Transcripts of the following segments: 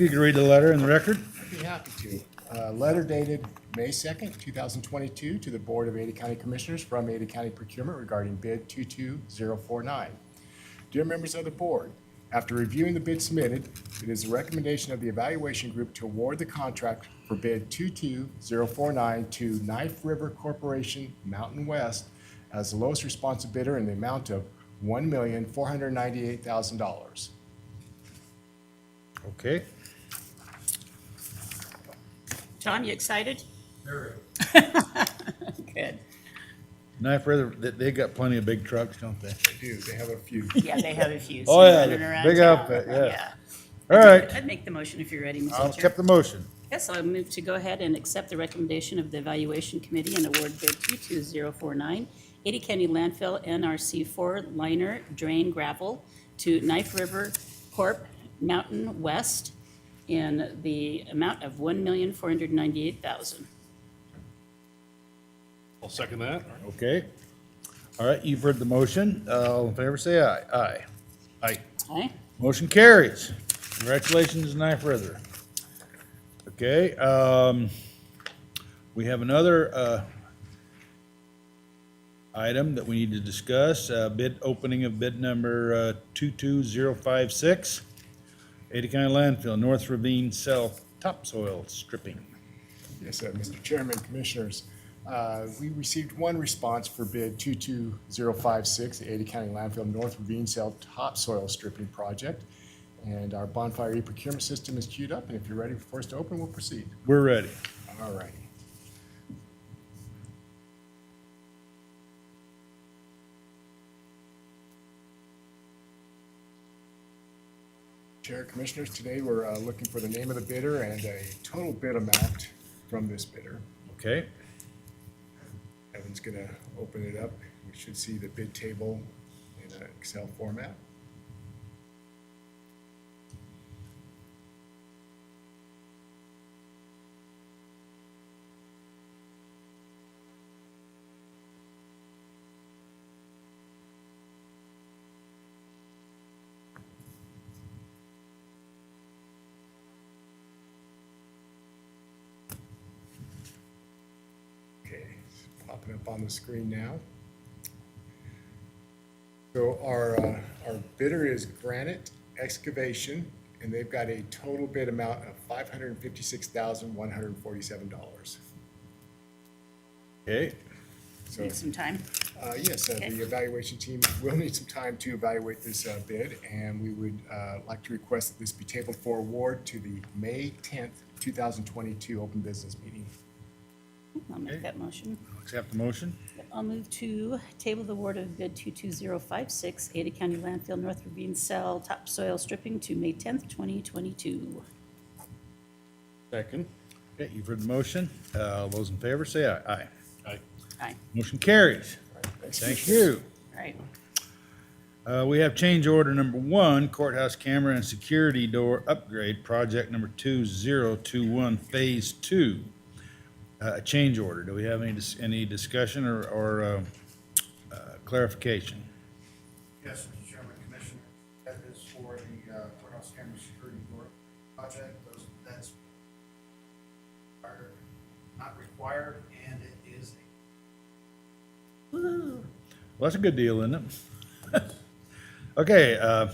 You can read the letter in the record. Be happy to. Uh, Letter dated May 2nd, 2022, to the Board of Ada County Commissioners from Ada County Procurement regarding bid 22049. Dear members of the board, after reviewing the bid submitted, it is the recommendation of the evaluation group to award the contract for bid 22049 to Knife River Corporation Mountain West as the lowest responsive bidder in the amount of $1,498,000. Okay. John, you excited? Very. Good. Knife River, they, they got plenty of big trucks, don't they? Do they have a few? Yeah, they have a few. Oh, yeah, running around big town. outfit, yeah. All right, I'd make the motion if you're ready, I'll Mr. Chair. accept the motion. Yes, I'll move to go ahead and accept the recommendation of the Evaluation Committee and award bid 22049, 80 County Landfill NRC 4 liner drain gravel to Knife River Corp. Mountain West in the amount of $1,498,000. I'll second that. Okay. All right, you've heard the motion. Uh, All in favor, say aye. Aye. Aye. Aye? Motion carries. Congratulations, Knife River. Okay, um, we have another, uh, item that we need to discuss, uh, bid, opening of bid number, uh, two-two-zero-five-six, Ada County landfill, North Ravine Cell topsoil stripping. Yes, sir, Mr. Chairman, Commissioners. uh, We received one response for bid 22056, the Ada County Landfill North Ravine Cell Topsoil Stripping Project. And our bonfire e-procurement system is queued up, and if you're ready for us to open, we'll proceed. We're ready. All righty. Chair Commissioners, today we're uh, looking for the name of the bidder and a total bid amount from this bidder. Okay, Evan's gonna open it up. We should see the bid table in an Excel format. Okay, it's popping up on the screen now. So our, uh, our bidder is Granite Excavation, and they've got a total bid amount of five hundred and fifty-six thousand, one hundred and forty-seven dollars. okay, So, Need some time? uh, yes, uh, Okay. the evaluation team will need some time to evaluate this, uh, bid, and we would, uh, like to request that this be tabled for award to the May tenth, two thousand twenty-two open business meeting. I'll make that motion. accept the motion. I'll move to table the award of bid 22056, Ada County Landfill North Ravine Cell Topsoil Stripping to May 10th, 2022. Second. Okay, you've heard the motion. Uh, all those in favor, say aye. Aye. Aye. Aye. Motion carries. Thank you. All right. Uh, we have change order number one, courthouse camera and security door upgrade, project number two zero two one, phase two. Uh, a change order. Do we have any, dis- any discussion or, or, uh, uh, clarification? Yes, Mr. Chairman, Commissioner, that is for the uh, courthouse camera security door project, those, that's are not required, and it is a Woo. Well, that's a good deal, isn't it? Okay, uh,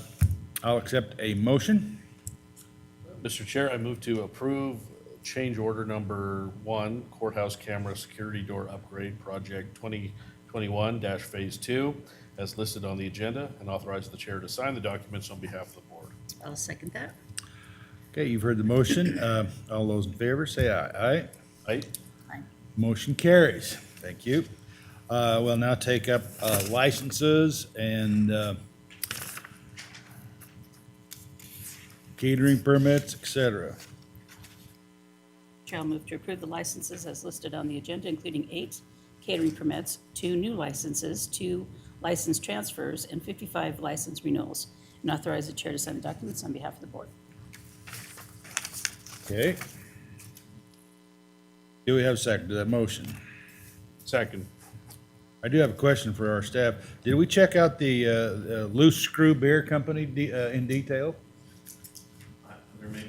I'll accept a motion. Mr. Chair, I move to approve change order number one, courthouse camera security door upgrade project twenty twenty-one phase two, as listed on the agenda, and authorize the chair to sign the documents on behalf of the board. I'll second that. Okay, you've heard the motion. Uh, all those in favor, say aye. Aye. Aye. Aye. Motion carries. Thank you. Uh, We'll now take up uh, licenses and uh, catering permits, et cetera. Chair will move to approve the licenses as listed on the agenda, including eight catering permits, two new licenses, two license transfers, and 55 license renewals, and authorize the chair to sign the documents on behalf of the board. Okay? Do we have a second to that motion? Second. I do have a question for our staff. Did we check out the uh, uh, Loose Screw Beer Company de- uh, in detail?